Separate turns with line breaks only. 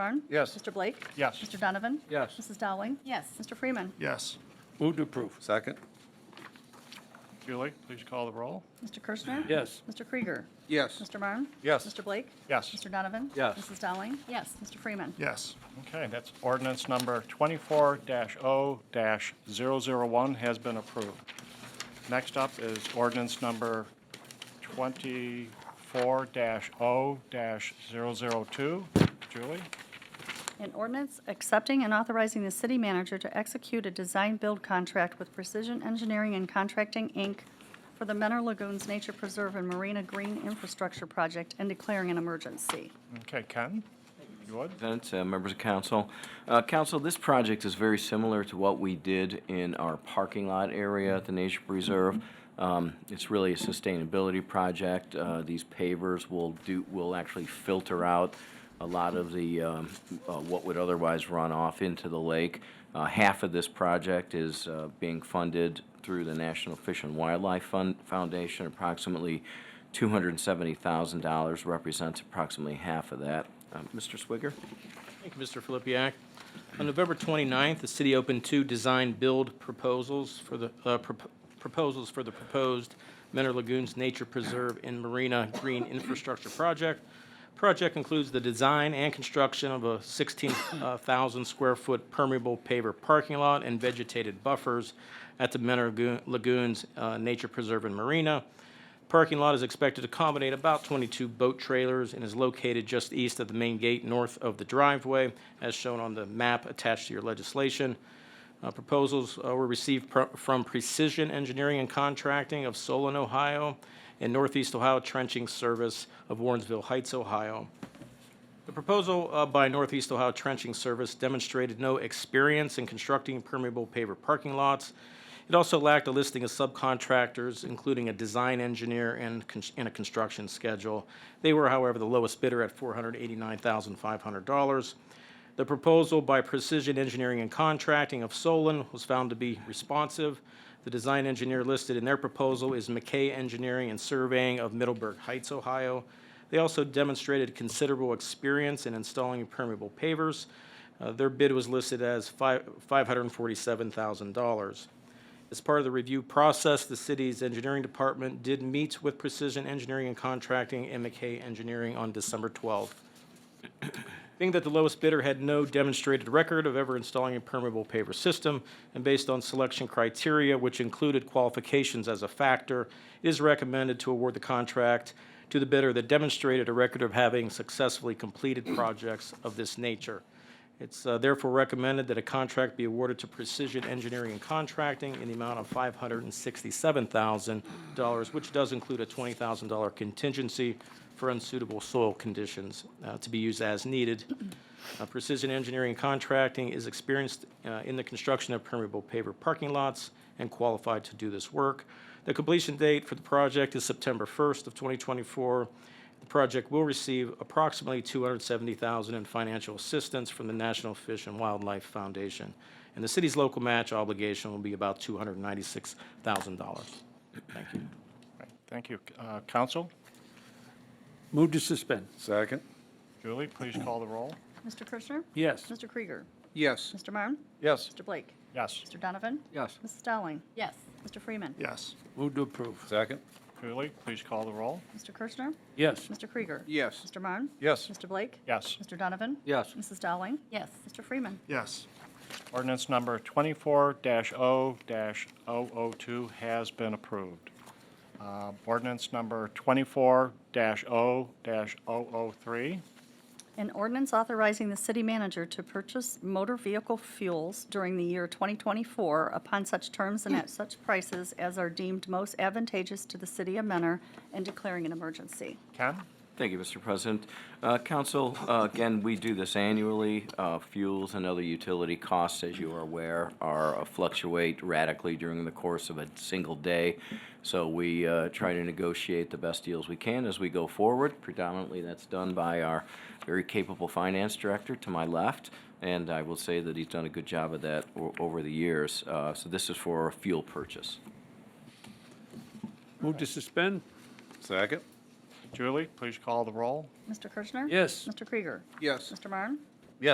Byrne?
Yes.
Mr. Blake?
Yes.
Mr. Donovan?
Yes.
Mrs. Dowling?
Yes.
Mr. Freeman?
Yes.
Move to approve.
Second?
Julie, please call the roll.
Mr. Kirschner?
Yes.
Mr. Krieger?
Yes.
Mr. Byrne?
Yes.
Mr. Blake?
Yes.
Mr. Donovan?
Yes.
Mrs. Dowling?
Yes.
Mr. Freeman?
Yes.
Okay, that's ordinance number 24-0-001 has been approved. Next up is ordinance number 24-0-002. Julie?
An ordinance accepting and authorizing the city manager to execute a design-build contract with Precision Engineering and Contracting, Inc. for the Menor Lagoons Nature Preserve and Marina Green Infrastructure Project and declaring an emergency.
Okay, Ken? You would?
President, uh, members of council. Uh, Council, this project is very similar to what we did in our parking lot area at the Nature Preserve. Um, It's really a sustainability project. Uh, These pavers will do, will actually filter out a lot of the, um, uh, what would otherwise run off into the lake. Uh, Half of this project is uh, being funded through the National Fish and Wildlife Fund Foundation. Approximately $270,000 represents approximately half of that. Um, Mr. Swigger?
Thank you, Mr. Filipiak. On November 29th, the city opened two design-build proposals for the, uh, prop- proposals for the proposed Mentor Lagoons Nature Preserve and Marina Green Infrastructure Project. Project includes the design and construction of a uh, 16,000-square-foot permeable paver parking lot and vegetated buffers at the Mentor Lagoon- Lagoons uh, Nature Preserve and Marina. Parking lot is expected to accommodate about 22 boat trailers and is located just east of the main gate, north of the driveway, as shown on the map attached to your legislation. Uh, Proposals uh, were received pro- from Precision Engineering and Contracting of Solon, Ohio, and Northeast Ohio Trenching Service of Warrensville Heights, Ohio. The proposal uh, by Northeast Ohio Trenching Service demonstrated no experience in constructing permeable paver parking lots. It also lacked a listing of subcontractors, including a design engineer and con- and a construction schedule. They were, however, the lowest bidder at $489,500. The proposal by Precision Engineering and Contracting of Solon was found to be responsive. The design engineer listed in their proposal is McKay Engineering and Surveying of Middleburg Heights, Ohio. They also demonstrated considerable experience in installing permeable pavers. Uh, Their bid was listed as fi- $547,000. As part of the review process, the city's engineering department did meet with Precision Engineering and Contracting and McKay Engineering on December 12th. Being that the lowest bidder had no demonstrated record of ever installing a permeable paver system, and based on selection criteria, which included qualifications as a factor, it is recommended to award the contract to the bidder that demonstrated a record of having successfully completed projects of this nature. It's uh, therefore recommended that a contract be awarded to Precision Engineering and Contracting in the amount of $567,000, which does include a $20,000 contingency for unsuitable soil conditions uh, to be used as needed. Uh, Precision Engineering and Contracting is experienced uh, in the construction of permeable paver parking lots and qualified to do this work. The completion date for the project is September 1st of 2024. The project will receive approximately 270,000 in financial assistance from the National Fish and Wildlife Foundation. And the city's local match obligation will be about $296,000.
Right, Thank you. Uh, Counsel?
Move to suspend.
Second?
Julie, please call the roll.
Mr. Kirschner?
Yes.
Mr. Krieger?
Yes.
Mr. Marm?
Yes.
Mr. Blake?
Yes.
Mr. Donovan?
Yes.
Mrs. Dowling?
Yes.
Mr. Freeman?
Yes.
Move to approve.
Second?
Julie, please call the roll.
Mr. Kirschner?
Yes.
Mr. Krieger?
Yes.
Mr. Marm?
Yes.
Mr. Blake?
Yes.
Mr. Donovan?
Yes.
Mrs. Dowling?
Yes.
Mr. Freeman?
Yes.
Ordinance number 24-0-002 has been approved. Uh, Ordinance number 24-0-003.
An ordinance authorizing the city manager to purchase motor vehicle fuels during the year 2024 upon such terms and at such prices as are deemed most advantageous to the city of Menor and declaring an emergency.
Ken?
Thank you, Mr. President. Uh, Council, uh, again, we do this annually. Uh, Fuels and other utility costs, as you are aware, are uh, fluctuate radically during the course of a single day. So we uh, try to negotiate the best deals we can as we go forward. Predominantly, that's done by our very capable finance director to my left, and I will say that he's done a good job of that o- over the years. Uh, So this is for a fuel purchase.
Move to suspend.
Second?
Julie, please call the roll.
Mr. Kirschner?
Yes.
Mr. Krieger?
Yes.
Mr. Marm?